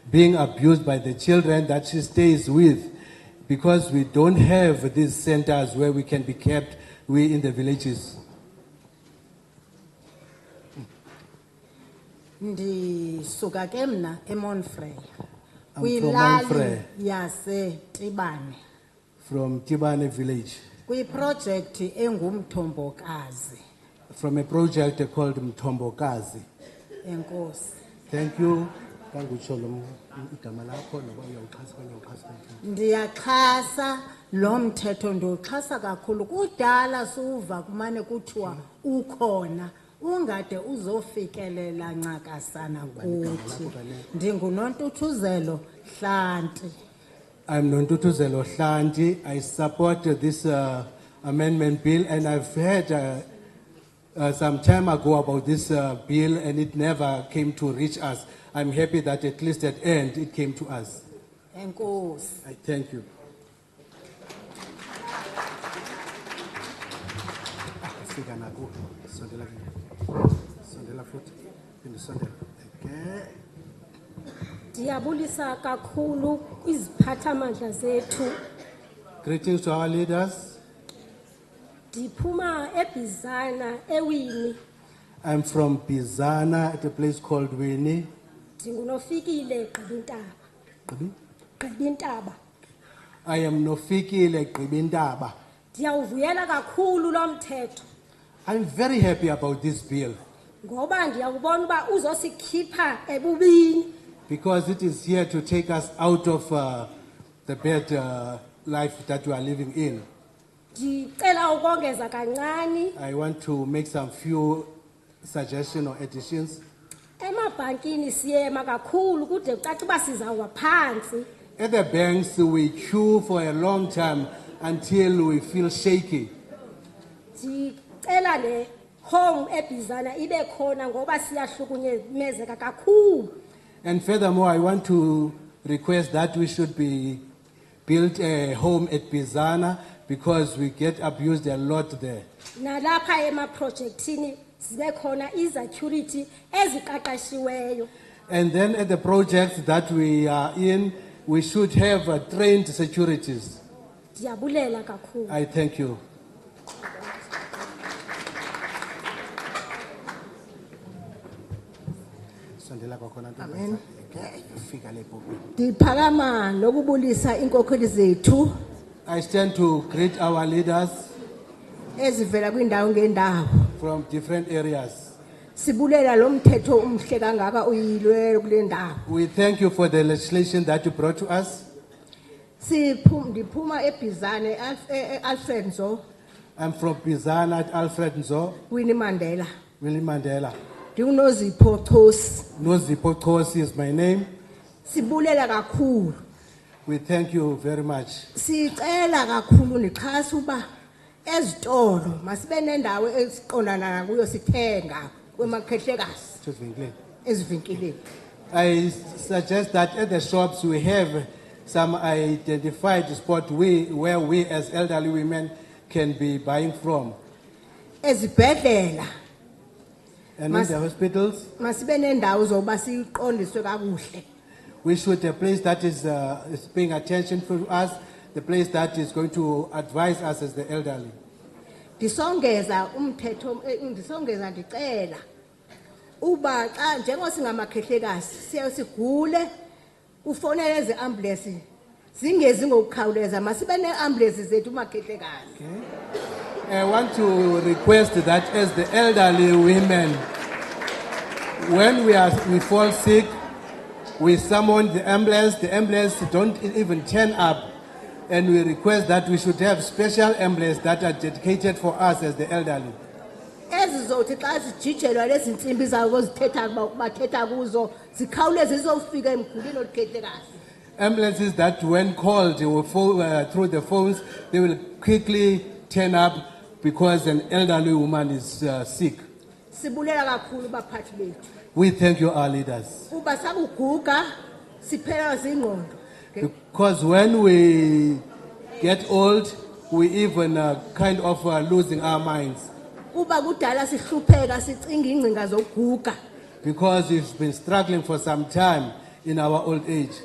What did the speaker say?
being abused by the children that she stays with because we don't have these centers where we can be kept, we in the villages. ndisuka ke mna emonfrey I'm from kwilali Monfrey. yasetibane From Tibane village, kwiprojekthi engumthombokazi from a project called Mtombokazi. enkosi Thank you. Kangutsho lo m- igama lakho noba uyawuxhasa okanye awuxhasi, thank you. ndiyaxhasa lo mthetho ndiwuxhasa kakhulu kudala suva kumane kuthiwa ukhona ungade uzofikelela ncakasana kuthi ndingunontuthuzelo hlanti I'm Nontutuzelo Hlanti. I support uh, this uh, amendment bill and I've heard uh, uh, some time ago about this uh, bill and it never came to reach us. I'm happy that at least at end it came to us. enkosi I thank you. Ah, fika nako. Sondela kimi. Sondela futhi. Phinde sondela. Okay. Ndiyabulisa kakhulu kwiziphathamandla zethu. Greetings to our leaders. Ndiphuma eBizana ewini. I'm from Bizana at a place called Winnie. Ndingunofikile Gqibintaba. Gqibintaba. I am Nofikile Gibindaba. Ndiyawuvuyela kakhulu lo mthetho I'm very happy about this bill ngoba ndiyakubona uba uzosikhipha ebubini. because it is here to take us out of uh, the bad uh, life that we are living in. Ndicela ukongeza kancane I want to make some few suggestions or additions. emabhankini siyema kakhulu kude kucace uba sizawuwa phantsi. At the banks, we queue for a long time until we feel shaky. Ndicela le home eBizana ibe khona ngoba siyahlukunyezeka kakhulu. And furthermore, I want to request that we should be built a home at Bizana because we get abused a lot there. nalapha emaprojekthini zibe khona izecurity eziqaqashiweyo And then at the project that we are in, we should have uh, trained securities. ndiyabulela kakhulu I thank you. Amen. ndiphakama nokubulisa iinkokheli zethu I stand to greet our leaders ezivela kwiindawo ngeendawo from different areas. sibulela lo mthetho umhle kangaka uyilwelo kule ndawo We thank you for the legislation that you brought to us. Siphu- ndiphuma ebhizane Alf- e- e- alfred nzo I'm from Bizana at Alfred Nzo, winnie mandela Willie Mandela. ndingunozipho chosi Nozipo Kosi is my name. sibulela kakhulu We thank you very much. sicela kakhulu ndixhasa uba ezitolo masibe nendawo esiqondana kuyo sithenga kwemakhehlekazi Excuse me, Glenn. ezivenkileni I suggest that at the shops we have some identified spot we, where we as elderly women can be buying from. ezibhedlela And in Mas- the hospitals, masibe nendawo zokuba siqondiswe kakuhle we should, a place that is, uh, is paying attention to us, the place that is going to advise us as the elderly. ndisongeza umthetho eh, ndisongeza ndicela uba xa njengoba singamakhehlekazi siye sigule ufonele eziambulensi zingezi ngokukhawuleza masibe neambulensi zethu umakhehlekazi I want to request that as the elderly women, when we are we fall sick, we summon the ambulance. The ambulance don't e-, even turn up, and we request that we should have special ambulances that are dedicated for us as the elderly. ezizothi xa zijijelwa lezi ntsimbi zabo zithetha ba- bathetha kuzo zikhawuleze zizofika emgulini olukhehlekazi Ambulances that, when called will fo- uh, through the phones, they will quickly turn up because an elderly woman is uh, sick. sibulela kakhulu baphathi bethu We thank you, our leaders. uba sakuguga siphelelwa zingqondo Because when we get old, we even uh, kind of uh, losing our minds kuba kudala sihlupheka sicinga iingcinga zokuguga because we've been struggling for some time in our old age.